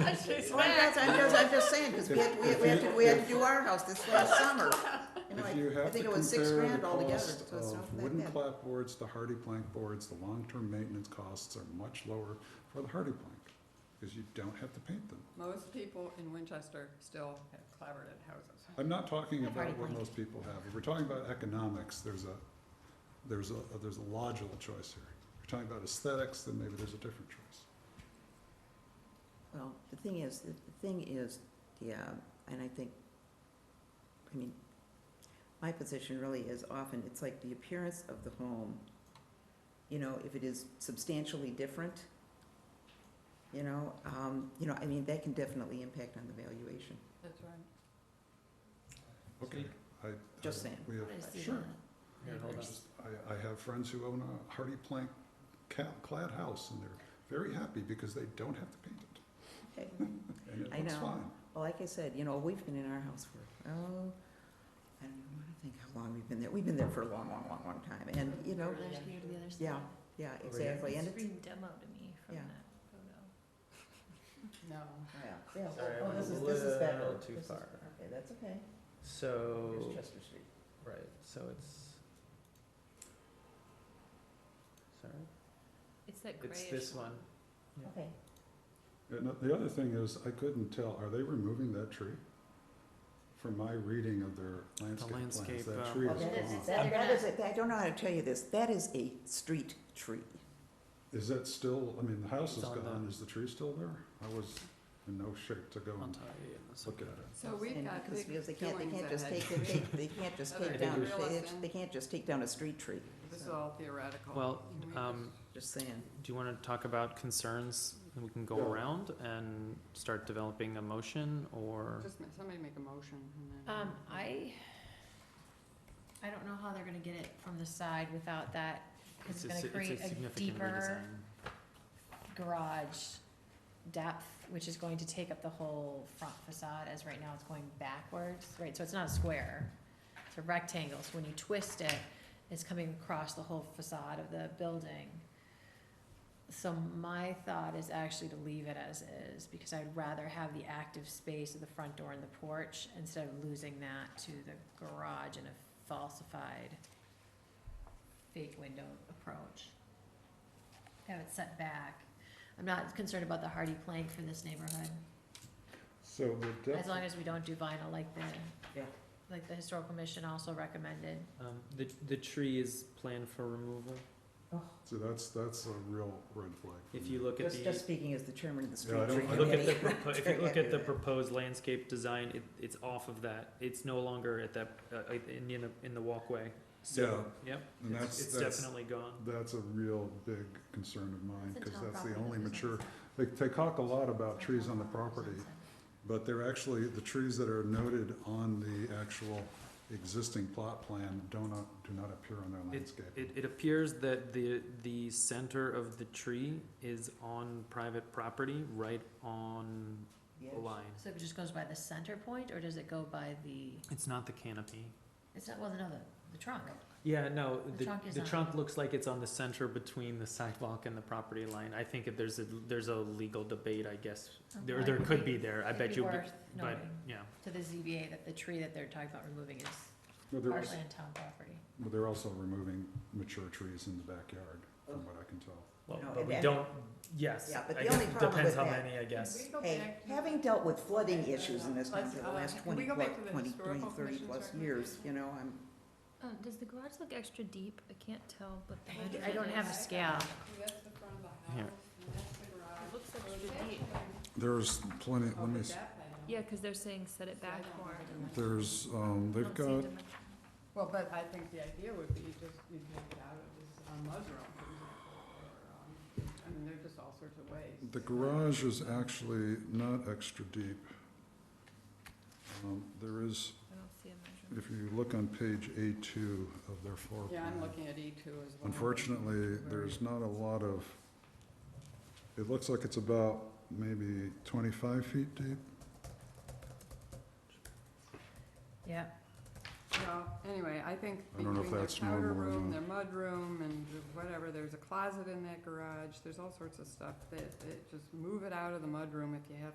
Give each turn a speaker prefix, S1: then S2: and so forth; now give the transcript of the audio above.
S1: It's
S2: Well,
S1: fine.
S2: that's, I'm just, I'm just saying, because we had, we had- we had to, we had to do our house this last summer. You know,
S3: If
S2: like,
S3: you
S2: I
S3: have to
S2: think it was six
S3: compare the
S2: grand altogether, so
S3: cost
S2: it's
S3: of
S2: not
S3: wooden
S2: that bad.
S3: clapboards to hardy plank boards, the long-term maintenance costs are much lower for the hardy plank, because you don't have to paint them.
S4: Most people in Winchester still have clavered houses.
S3: I'm not talking
S1: I've already
S3: about what
S1: pointed.
S3: most people have, if we're talking about economics, there's a, there's a, there's a logical choice here. If we're talking about aesthetics, then maybe there's a different choice.
S2: Well, the thing is, the the thing is, yeah, and I think, I mean, my position really is often, it's like the appearance of the home. You know, if it is substantially different, you know, um, you know, I mean, that can definitely impact on the valuation.
S4: That's right.
S3: Okay, I.
S2: Just
S3: I-
S2: saying.
S3: We have,
S1: I see
S3: sure.
S1: that.
S5: Here,
S3: I
S5: hold on.
S3: just, I, I have friends who own a hardy plank ca- clad house, and they're very happy because they don't have to paint it,
S2: Okay.
S3: and it
S2: I
S3: looks
S2: know.
S3: fine.
S2: Well, like I said, you know, we've been in our house for, oh, I don't even wanna think how long we've been there. We've been there for a long, long, long, long time. And, you know,
S1: There's me to the other side.
S2: yeah, yeah,
S5: Over here?
S2: exactly. And
S1: It's
S2: it's,
S1: reading demo to me from
S2: Yeah.
S1: that photo.
S4: No.
S2: yeah, yeah.
S5: Sorry, I
S2: Oh,
S5: went
S2: this
S5: a
S2: is, this is that
S5: little
S2: road.
S5: too
S2: This is-
S5: far.
S2: Okay, that's okay.
S5: So,
S2: Chester Street.
S5: right, so it's. Sorry,
S1: It's that
S5: it's
S1: grayish.
S5: this one.
S2: Okay.
S3: And the other thing is, I couldn't tell, are they removing that tree? From my reading of their landscape plans,
S5: landscape,
S3: that
S5: uh,
S3: tree
S2: Okay.
S1: That
S3: is
S1: is-
S3: gone.
S1: that-
S2: Oh, That that is, a- I don't know how to tell you this. That is a street tree.
S3: Is that still, I mean, the house
S5: It's
S3: is
S5: on
S3: gone,
S5: the-
S3: is the tree still there? I was in no shape to go
S2: Um,
S3: and look at it.
S4: So we've
S2: And
S4: got
S2: because
S4: big
S2: because they can't, they
S4: killings
S2: can't just
S4: ahead.
S2: take, they, they can't just
S4: Other
S2: take down,
S5: neighbors.
S2: they,
S4: Realize
S2: they can't just take down a street tree.
S4: This is
S2: So,
S4: all theoretical.
S5: Well,
S4: Can we
S5: um,
S2: Just saying.
S5: do you wanna talk about concerns, and we can go
S3: Yeah.
S5: around and start developing a motion, or?
S4: Just, ma- somebody make a motion and then.
S1: Um, I, I don't know how they're gonna get it from the side without that,
S5: It's
S1: because
S5: a
S1: it's
S5: si-
S1: gonna create a
S5: significant
S1: deeper
S5: redesign.
S1: garage depth, which is going to take up the whole front facade, as right now it's going backwards, right, so it's not a square. It's a rectangle, so when you twist it, it's coming across the whole facade of the building. So my thought is actually to leave it as is, because I'd rather have the active space of the front door and the porch, instead of losing that to the garage and a falsified fake window approach. Have it set back. I'm not concerned about the hardy plank for this neighborhood,
S3: So the
S1: as
S3: depth,
S1: long as we don't do vinyl like the,
S2: Yeah.
S1: like the historical commission also recommended.
S5: Um, the, the tree is planned for removal,
S3: so that's, that's a real red flag. for
S5: if
S3: me.
S5: you look at the.
S2: Just, just speaking as the chairman of the
S3: Yeah, I
S2: street tree
S3: don't- I
S5: Look at
S2: committee.
S5: the, propo- if
S2: Very
S5: you look at
S2: happy
S5: the
S2: with that.
S5: proposed landscape design, it, it's off of that, it's no longer at that, uh, uh, in, in the, in the walkway. So, yep,
S3: And
S5: it's,
S3: that's,
S5: it's
S3: that's,
S5: definitely gone.
S3: that's a real big concern of mine,
S1: It's a
S3: cause
S1: town
S3: that's the
S1: property,
S3: only
S1: there's no
S3: mature,
S1: incentive.
S3: they, they talk a lot about
S1: It's a
S3: trees
S1: town
S3: on the
S1: there's no
S3: property,
S1: incentive.
S3: But they're actually, the trees that are noted on the actual existing plot plan do not, do not appear on their
S5: It,
S3: landscape.
S5: it appears that the, the center of the tree is on private property, right on the line.
S1: So it just goes by the center point, or does it go by the,
S5: It's not the canopy.
S1: it's not, well, no, the, the trunk,
S5: Yeah, no,
S1: The
S5: the,
S1: trunk is
S5: the
S1: on
S5: trunk
S1: it.
S5: looks like it's on the center between the sidewalk and the property line. I think if there's a, there's a legal debate, I guess, there,
S1: Well,
S5: there
S1: it'd
S5: could
S1: be-
S5: be there, I
S1: it'd
S5: bet
S1: be
S5: you, but,
S1: worth
S5: but,
S1: noting.
S5: yeah.
S1: to the ZBA that the tree that they're talking about removing is
S3: But they're also,
S1: partially on town property.
S3: but they're also removing mature trees in the backyard, from what I can tell.
S5: Well,
S2: No,
S5: but
S2: and
S5: we
S2: that-
S5: don't, yes,
S2: Yeah, but the
S5: I guess
S2: only
S5: it
S2: problem
S5: depends
S2: with
S5: how
S2: that-
S5: many, I guess.
S4: Can we go
S2: Hey,
S4: back to-
S2: having dealt with flooding issues in this town
S4: Let's,
S2: for the
S4: uh,
S2: last
S4: can we
S2: twenty,
S4: go back to
S2: what,
S4: the
S2: twenty, twenty,
S4: historical
S2: thirty
S4: commission's
S2: plus years, you know, I'm,
S1: Um, does the garage look extra deep? I can't tell, but
S4: the I-
S1: I don't have a scale.
S4: That's the front of the house,
S5: Here.
S4: and that's the garage.
S1: It looks
S4: So
S1: like
S4: it's
S1: it's
S4: actually
S1: deep.
S3: There's plenty, let me,
S4: over
S3: s-
S4: that way.
S1: because they're saying set it
S4: So I don't know the dimensions.
S3: there's, um, they've got,
S4: Well, but I think the idea would be just, you take it out of this, um, mud room, for example, or, um, I mean, there's just all sorts of ways.
S3: the garage is actually not extra deep. Um, there is,
S1: I don't see a
S3: if you look on page A two of their floor plan.
S4: Yeah, I'm looking at E two as well.
S3: Unfortunately, there's not a lot of, it looks like it's about maybe twenty-five feet deep.
S1: Yeah,
S4: Well, anyway, I think
S3: I don't know if
S4: between their
S3: that's
S4: powder
S3: normal or
S4: room,
S3: not.
S4: their mud room, and whatever, there's a closet in that garage, there's all sorts of stuff that, that, just move it out of the mud room if you have